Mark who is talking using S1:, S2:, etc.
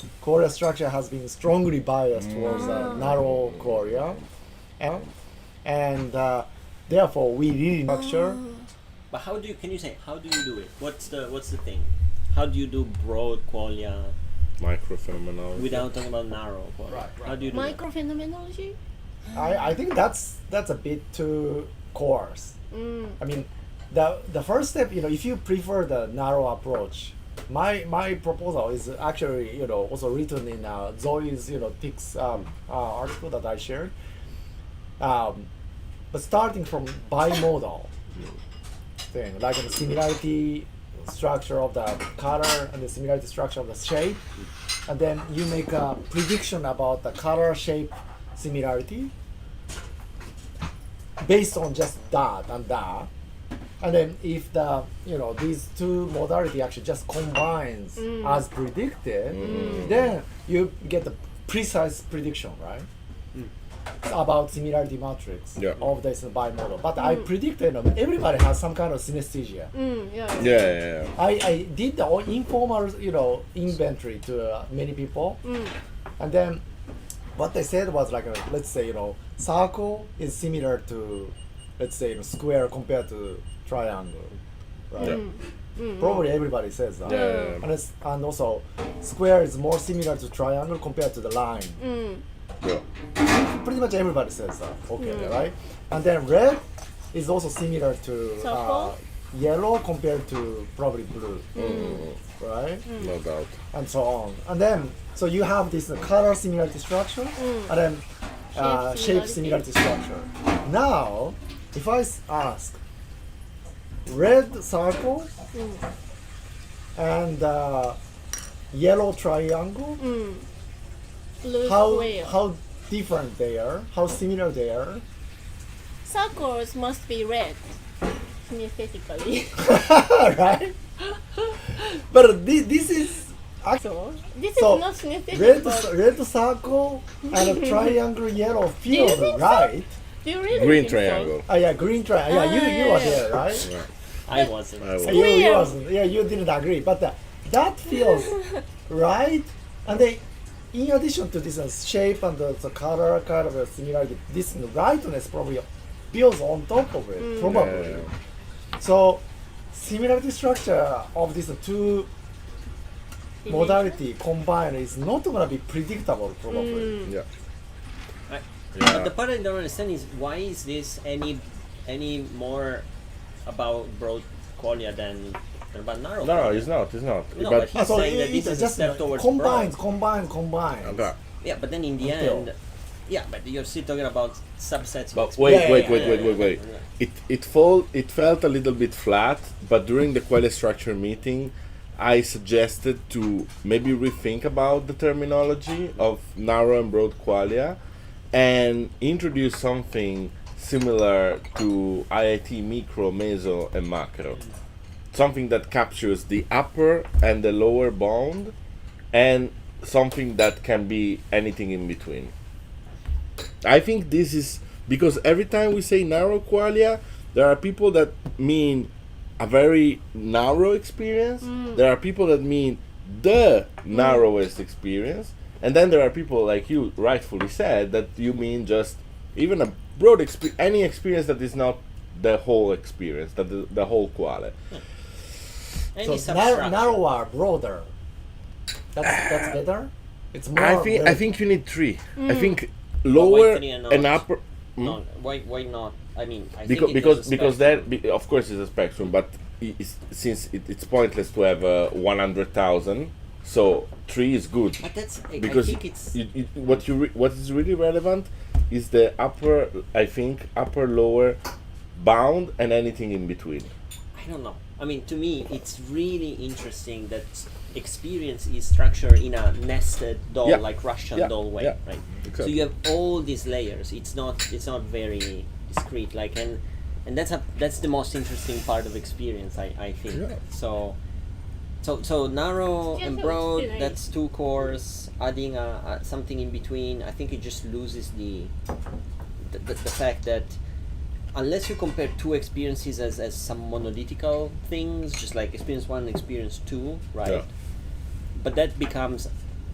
S1: Korea structure has been strongly biased towards a narrow Korea, and, and uh, therefore we really structure.
S2: But how do you? Can you say how do you do it? What's the What's the thing? How do you do broad qualia
S3: Microfilm
S2: without talking about narrow qualia?
S1: Right, right.
S2: How do you do it?
S4: Microphenomenology?
S1: I, I think that's that's a bit too coarse.
S4: Mm.
S1: I mean, the the first step, you know, if you prefer the narrow approach, my my proposal is actually, you know, also written in uh, Zoe's, you know, Tick's um, uh, article that I shared. Um, but starting from bimodal thing, like the similarity structure of the color and the similarity structure of the shape, and then you make a prediction about the color shape similarity based on just that and that. And then if the you know these two modality actually just combines as predicted, then you get the precise prediction, right? It's about similarity matrix
S3: Yeah.
S1: of this bimodal. But I predicted you know, everybody has some kind of synesthesia.
S4: Mm,
S3: Yeah,
S4: yeah.
S3: yeah, yeah.
S1: I, I did the all informal you know inventory to uh, many people,
S4: Mm.
S1: and then what they said was like uh, let's say you know circle is similar to let's say you know, square compared to triangle, right?
S4: Mm.
S3: Yeah.
S1: Probably everybody says that.
S3: Yeah, yeah, yeah.
S1: And, it's, and also square is more similar to triangle compared to the line.
S4: Mm.
S3: yeah.
S1: Pretty much everybody says that. Okay, right? And then red is also similar to uh,
S4: Circle?
S1: yellow compared to probably blue,
S4: Mm.
S1: right?
S3: No doubt.
S1: and so on. And then, so you have this uh, color similarity structure, and then uh, shape
S4: Mm. Shape
S1: similarity structure. Now, if I s- ask red circle
S4: Mm.
S1: and uh, yellow triangle,
S4: Mm, Blue
S1: how
S4: square.
S1: how different they are, how similar they are.
S4: Circles must be red. Kinesthetically.
S1: right? but thi- this is
S4: so, this
S1: So,
S4: is not kinesthetic.
S1: red,
S4: but
S1: c- red circle and a triangle yellow feels
S4: think so?
S1: right.
S4: do you really
S3: Green
S4: think so?
S3: triangle.
S1: Ah, yeah, green try. Yeah, you you were there, right?
S3: Yeah.
S2: I wasn't.
S3: I
S1: Yeah,
S3: will.
S1: you, you
S4: Square.
S1: wasn't. Yeah, you didn't agree, but uh, that feels right. And then, in addition to this uh, shape and the, the color kind of a similarity, this rightness probably builds on top of it, probably.
S3: Yeah, yeah.
S1: So, similarity structure of these two modality combined is not gonna be predictable, probably.
S3: Yeah.
S2: Right. But
S3: Yeah.
S2: the part I don't understand is why is this any any more about broad qualia than, than about narrow?
S3: No,
S2: qualia?
S3: it's not. It's not.
S2: No,
S3: but
S2: but He's saying that this
S1: it's
S2: is a step towards
S1: combines,
S2: broad.
S1: combines, combines.
S3: okay.
S2: Yeah, but then in the
S1: Until-
S2: end, yeah, but you're still talking about subsets. of
S3: But
S2: expression.
S3: wait,
S1: Yeah,
S3: wait,
S1: yeah,
S3: wait,
S2: yeah,
S3: wait,
S2: yeah,
S3: wait, wait.
S2: yeah.
S3: It it fall it felt a little bit flat, but during the quality structure meeting, I suggested to maybe rethink about the terminology of narrow and broad qualia, and introduce something similar to IIT micro, meso, and macro, something that captures the upper and the lower bound, and something that can be anything in between. I think this is because every time we say narrow qualia, there are people that mean a very narrow experience. There are people that mean the narrowest experience, and then there are people like you rightfully said that you mean just even a broad experience, any experience that is not the whole experience, that the, the whole qualia.
S2: Any
S1: So narrow,
S2: substructure.
S1: narrower, broader. That's that's better. It's more.
S3: I think I
S1: well-
S3: think you need three. I think
S2: lower
S3: lower
S2: three and
S3: and,
S2: not- and
S3: upper. hmm?
S2: No, why, why not? I mean, I
S3: because
S2: think it
S3: because
S2: has a
S3: because
S2: spectrum.
S3: that be, of course is a spectrum, but i- is, since it, it's pointless to have uh, one hundred thousand, so three is good
S2: But that's I,
S3: because
S2: I think it's
S3: you- you- what you re- what is really relevant is the upper I think upper lower bound and anything in between.
S2: I don't know. I mean, to me, it's really interesting that experience is structured in a nested doll,
S3: Yeah.
S2: like Russian
S3: Yeah.
S2: doll way,
S3: Yeah.
S2: right? So
S3: Exactly.
S2: you have all these layers. It's not it's not very discrete. Like and and that's a, that's the most interesting part of experience, I I think.
S3: Yeah.
S2: So. So, so narrow
S4: Yeah,
S2: and
S4: so
S2: broad.
S4: it's
S2: That's two cores. Adding a, a, something in between, I think it just loses the the, the, the fact that unless you compare two experiences as, as some monolithical things, just like experience one, experience two, right?
S3: Yeah.
S2: But that becomes